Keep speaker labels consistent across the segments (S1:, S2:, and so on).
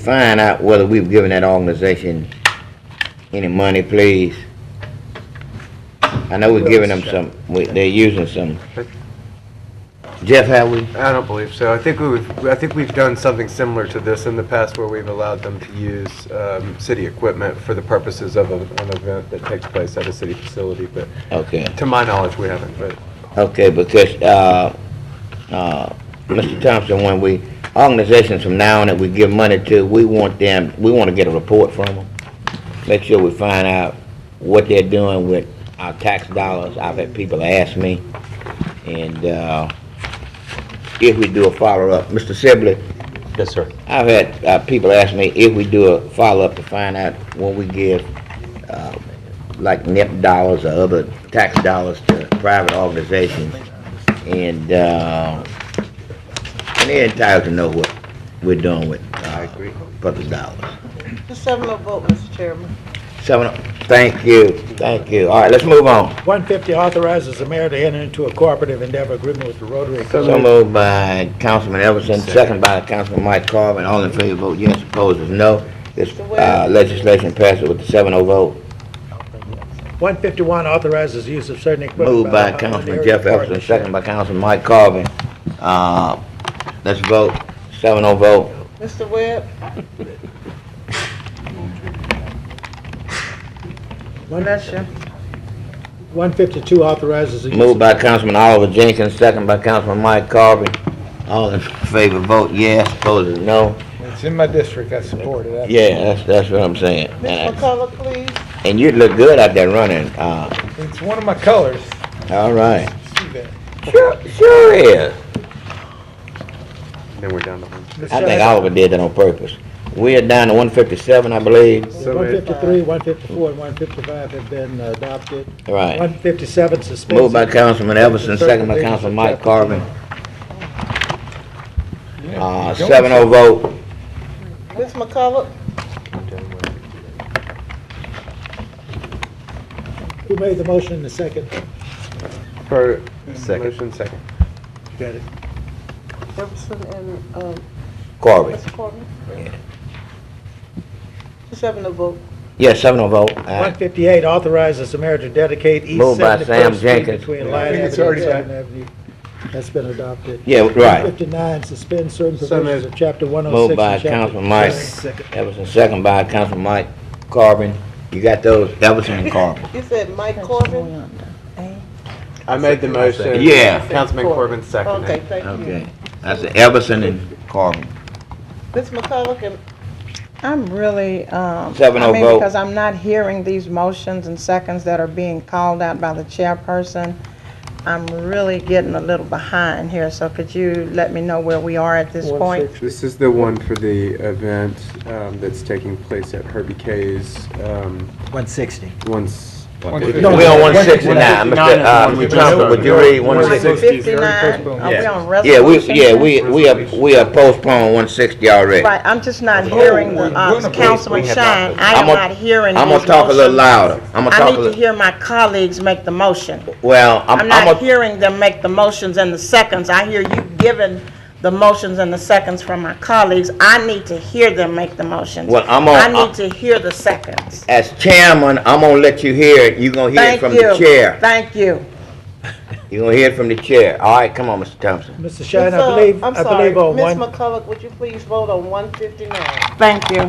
S1: find out whether we've given that organization any money, please? I know we're giving them some, we- they're using some. Jeff, have we?
S2: I don't believe so. I think we've, I think we've done something similar to this in the past where we've allowed them to use um, city equipment for the purposes of a- an event that takes place at a city facility, but
S1: Okay,
S2: to my knowledge, we haven't, but
S1: okay, because, uh, uh, Mr. Thompson, when we, organizations from now on that we give money to, we want them, we want to get a report from them. Make sure we find out what they're doing with our tax dollars. I've had people ask me. And, uh, if we do a follow-up, Mr. Sibley,
S3: Yes, sir.
S1: I've had uh, people ask me if we do a follow-up to find out what we give, uh, like NIP dollars or other tax dollars to private organizations. And uh, and they're entitled to know what we're doing with uh, public dollars.
S4: The seven oh vote, Mr. Chairman.
S1: So, thank you, thank you. All right, let's move on.
S5: 150 authorizes the mayor to enter into a cooperative endeavor agreement with the Rotary
S1: So moved by Councilman Everson, second by Councilman Mike Carvin. All in favor, vote yes. Opposed is no. This uh, legislation passes with the 7-0 vote.
S5: 151 authorizes use of certain equipment.
S1: Moved by
S5: the
S1: Councilman
S5: Holiday
S1: Jeff Everson,
S5: Partnership.
S1: second by Councilman Mike Carvin. Uh, Let's vote, seven oh vote.
S4: Mr. Webb?
S5: 152 authorizes. the use
S1: Moved
S5: of-
S1: by Councilman Oliver Jenkins, second by Councilman Mike Carvin. All in favor, vote yes, opposed, no.
S6: It's in my district, I support it.
S1: Yeah, that's, that's what I'm saying.
S4: Ms.
S1: And
S4: McCullough, please.
S1: and you'd look good out there running, uh,
S6: It's one of my colors.
S1: all right.
S6: See that?
S1: Sure, sure is.
S2: then we're down to one.
S1: I think Oliver did that on purpose. We are down to one fifty-seven, I believe.
S2: So it-
S5: 153, 154, and 155 have been uh, adopted.
S1: Right.
S5: 157 suspended.
S1: Moved by Councilman Everson, second by Councilman Mike Carvin. Uh, seven oh vote.
S4: Ms. McCullough?
S5: Who made the motion in the second?
S2: For motion second.
S5: Got it.
S4: Jefferson and, um,
S1: Corbett.
S4: Mr. Corbin? The seven oh vote.
S1: Yes, seven oh vote. Aye.
S5: 158 authorizes the mayor to dedicate East
S1: Moved by
S5: 71st
S1: Sam
S5: Street
S1: Jenkins.
S5: between
S6: I
S5: Lion
S6: think it's
S5: Avenue and
S6: already
S5: Seventh Avenue. That's been adopted.
S1: Yeah, right.
S5: 159, suspend certain
S2: So
S5: provisions
S2: moved.
S5: of Chapter 106.
S1: Moved by
S5: and Chapter
S1: Councilman Mike
S5: 106.
S1: Everson, second by Councilman Mike Corbin. You got those, Everson and Corbin.
S4: You said Mike Corbin?
S2: I made the motion.
S1: Yeah.
S2: Councilman Corbin seconded.
S4: Okay, thank you.
S1: Okay. That's Everson and Corbin.
S4: Ms. McCullough and
S7: I'm really, um,
S1: Seven oh
S7: I mean,
S1: vote.
S7: because I'm not hearing these motions and seconds that are being called out by the chairperson. I'm really getting a little behind here, so could you let me know where we are at this point?
S2: This is the one for the event um, that's taking place at Herbie K's, um,
S5: 160.
S2: once,
S1: We on one sixty-nine, Mr. Uh, Mr. Thompson, would you read one sixty?
S2: 160 is already
S7: 59,
S2: postponed.
S7: are we on
S1: Yeah, we,
S7: resolution?
S1: yeah, we, we are, we are postponed one sixty already.
S7: Right, I'm just not hearing
S6: we're
S7: the,
S6: gonna
S7: uh,
S6: postpone.
S7: Councilman
S6: We have
S7: Shine,
S6: not
S7: I
S1: I'm
S7: am
S1: gonna-
S7: not hearing
S1: I'm
S7: his
S1: gonna talk a little
S7: motion.
S1: louder. I'm gonna
S7: I
S1: talk a
S7: need to
S1: little,
S7: hear my colleagues make the motion.
S1: well,
S7: I'm
S1: I'm, I'm
S7: not
S1: gonna,
S7: hearing them make the motions and the seconds. I hear you giving the motions and the seconds from my colleagues. I need to hear them make the motions.
S1: Well, I'm on-
S7: I need to hear the seconds.
S1: as chairman, I'm gonna let you hear it. You gonna hear it
S7: Thank
S1: from
S7: you.
S1: the chair.
S7: Thank you.
S1: You gonna hear it from the chair. All right, come on, Mr. Thompson.
S5: Mr. Shine,
S4: Ms.
S5: I
S4: Uh,
S5: believe,
S4: I'm
S5: I
S4: sorry,
S5: believe on
S4: Ms.
S5: one,
S4: McCullough, would you please vote on one fifty-nine?
S7: Thank you.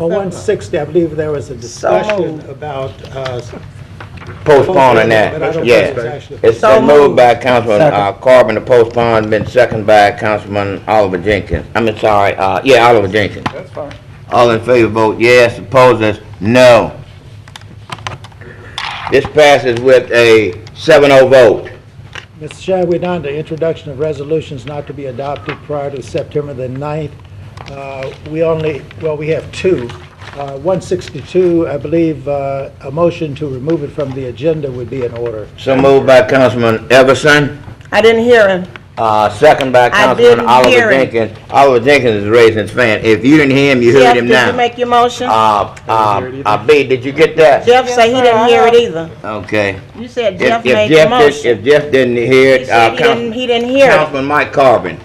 S5: on 160, I believe there was a discussion about, uh,
S1: Postponing
S5: But I
S1: that,
S5: don't think it's
S1: yeah.
S5: actually-
S1: It's been moved by Councilman uh, Corbin to postpone, been seconded by Councilman Oliver Jenkins. I'm sorry, uh, yeah, Oliver Jenkins.
S6: That's fine.
S1: All in favor, vote yes. Opposed, is no. This passes with a 7-0 vote.
S5: Mr. Shine, we're down to introduction of resolutions not to be adopted prior to September the 9th. Uh, We only, well, we have two. Uh, 162, I believe, uh, a motion to remove it from the agenda would be in order.
S1: So moved by Councilman Everson,
S7: I didn't hear him.
S1: uh, seconded by Councilman
S7: didn't hear
S1: Oliver
S7: him.
S1: Jenkins. Oliver Jenkins is raising his hand. If you didn't hear him, you heard him
S7: Jeff, did
S1: now.
S7: you make your motion?
S1: Uh, uh, uh, B, did you get that?
S7: Jeff say he didn't hear it either.
S1: Okay.
S7: You said
S1: If-
S7: Jeff
S1: if
S7: made the
S1: Jeff did-
S7: motion.
S1: If Jeff didn't hear
S7: He
S1: it, uh,
S7: said he
S1: Council-
S7: didn't, he didn't hear it.
S1: Councilman Mike Carvin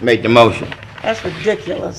S1: made the motion.
S7: That's ridiculous.